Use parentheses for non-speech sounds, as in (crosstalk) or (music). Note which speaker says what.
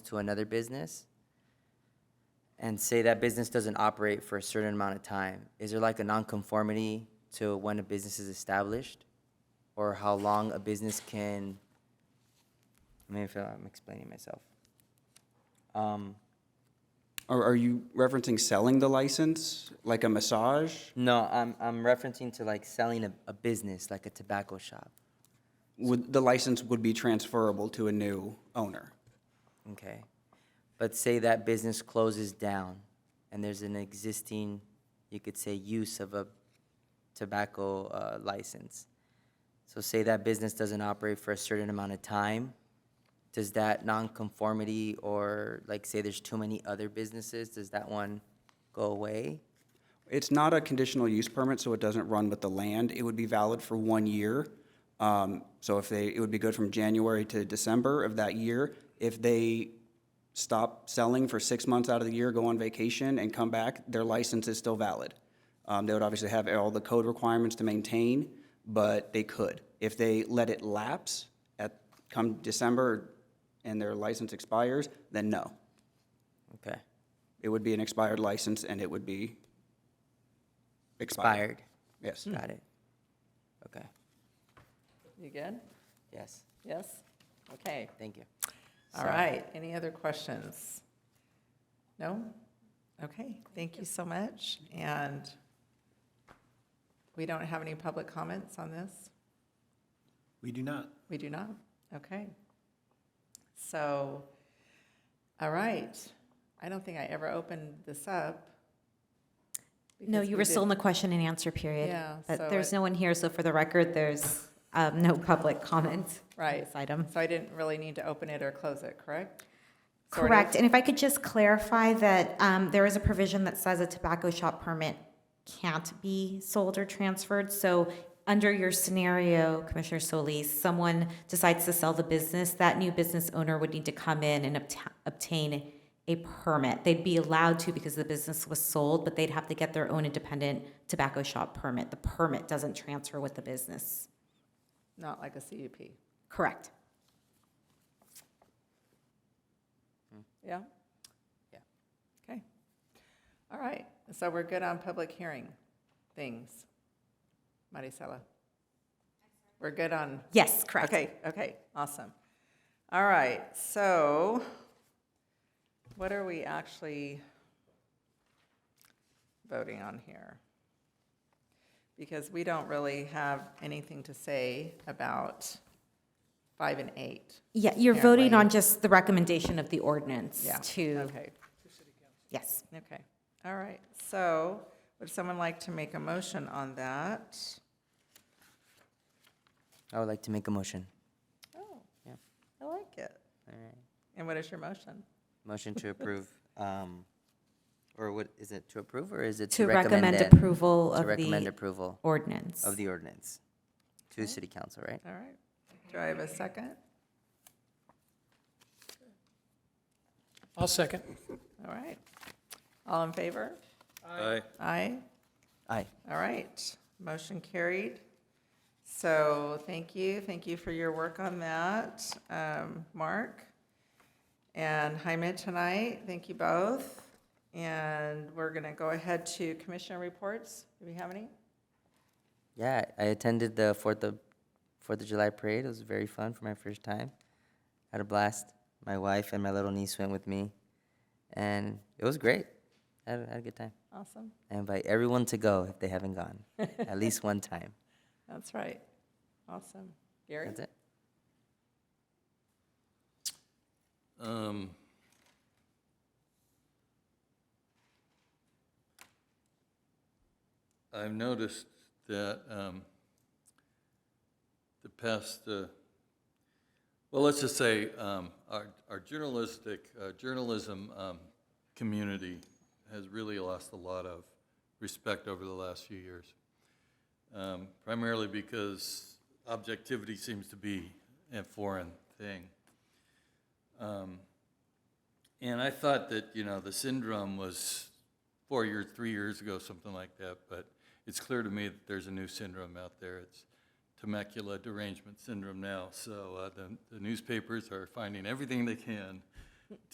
Speaker 1: to another business and say that business doesn't operate for a certain amount of time, is there like a nonconformity to when a business is established? Or how long a business can, I mean, I feel I'm explaining myself. Um,
Speaker 2: Are, are you referencing selling the license, like a massage?
Speaker 1: no, I'm, I'm referencing to like selling a, a business, like a tobacco shop.
Speaker 2: Would, the license would be transferable to a new owner.
Speaker 1: Okay. But say that business closes down and there's an existing, you could say, use of a tobacco uh, license. So say that business doesn't operate for a certain amount of time. Does that nonconformity or like say there's too many other businesses, does that one go away?
Speaker 2: It's not a conditional use permit, so it doesn't run with the land. It would be valid for one year. Um, so if they, it would be good from January to December of that year. If they stop selling for six months out of the year, go on vacation and come back, their license is still valid. Um, they would obviously have all the code requirements to maintain, but they could. If they let it lapse at, come December and their license expires, then no.
Speaker 1: Okay.
Speaker 2: It would be an expired license and it would be
Speaker 1: Expired.
Speaker 2: expired. Yes.
Speaker 3: Hmm.
Speaker 1: Got it. Okay.
Speaker 3: You good?
Speaker 1: Yes.
Speaker 3: Yes? Okay.
Speaker 1: Thank you.
Speaker 3: All right. Any other questions? No? Okay. Thank you so much. And we don't have any public comments on this?
Speaker 4: We do not.
Speaker 3: We do not? Okay. So, all right. I don't think I ever opened this up.
Speaker 5: No,
Speaker 3: because
Speaker 5: you
Speaker 3: we
Speaker 5: were still in
Speaker 3: did-
Speaker 5: the question and answer period.
Speaker 3: Yeah, so
Speaker 5: But there's
Speaker 3: it-
Speaker 5: no one here, so for the record, there's um, no public comment on
Speaker 3: Right.
Speaker 5: this item.
Speaker 3: So I didn't really need to open it or close it, correct? Sort of.
Speaker 5: Correct. And if I could just clarify that um, there is a provision that says a tobacco shop permit can't be sold or transferred. So under your scenario, Commissioner Solis, someone decides to sell the business, that new business owner would need to come in and obta- obtain a permit. They'd be allowed to because the business was sold, but they'd have to get their own independent tobacco shop permit. The permit doesn't transfer with the business.
Speaker 3: Not like a CUP.
Speaker 5: Correct.
Speaker 3: Yeah?
Speaker 1: Yeah.
Speaker 3: Okay. All right, so we're good on public hearing things. Maricela? We're good on,
Speaker 5: Yes, correct.
Speaker 3: okay, okay, awesome. All right, so what are we actually voting on here? Because we don't really have anything to say about five and eight.
Speaker 5: Yeah, you're voting
Speaker 3: Apparently.
Speaker 5: on just the recommendation of the ordinance
Speaker 3: Yeah,
Speaker 5: to,
Speaker 3: Okay.
Speaker 5: yes.
Speaker 3: Okay, all right. So would someone like to make a motion on that?
Speaker 1: I would like to make a motion.
Speaker 3: Oh,
Speaker 1: Yeah.
Speaker 3: I like it.
Speaker 1: All right.
Speaker 3: And what is your motion?
Speaker 1: Motion to approve, um, or what, is it to approve or is it
Speaker 5: To
Speaker 1: to recommend
Speaker 5: recommend
Speaker 1: it?
Speaker 5: approval
Speaker 1: To
Speaker 5: of
Speaker 1: recommend
Speaker 5: the
Speaker 1: approval
Speaker 5: ordinance.
Speaker 1: of the ordinance to city council, right?
Speaker 3: All right. Do I have a second?
Speaker 4: I'll second.
Speaker 3: All right. All in favor?
Speaker 4: Aye.
Speaker 3: Aye.
Speaker 1: Aye.
Speaker 3: All right. Motion carried. So thank you. Thank you for your work on that, um, Mark and Jaime tonight. Thank you both. And we're going to go ahead to commissioner reports. Do we have any?
Speaker 1: Yeah, I attended the Fourth of, Fourth of July parade. It was very fun for my first time. Had a blast. My wife and my little niece went with me, and it was great. I had, I had a good time.
Speaker 3: Awesome.
Speaker 1: I invite everyone to go if they haven't gone,
Speaker 5: (laughs)
Speaker 1: at least one time.
Speaker 3: That's right. Awesome. Gary?
Speaker 1: That's it.
Speaker 6: Um, I've noticed that um, the past, uh, well, let's just say um, our our journalistic, uh, journalism um, community has really lost a lot of respect over the last few years, Um, primarily because objectivity seems to be a foreign thing. Um, and I thought that, you know, the syndrome was four years, three years ago, something like that, but it's clear to me that there's a new syndrome out there. It's Temecula derangement syndrome now. So uh, the, the newspapers are finding everything they can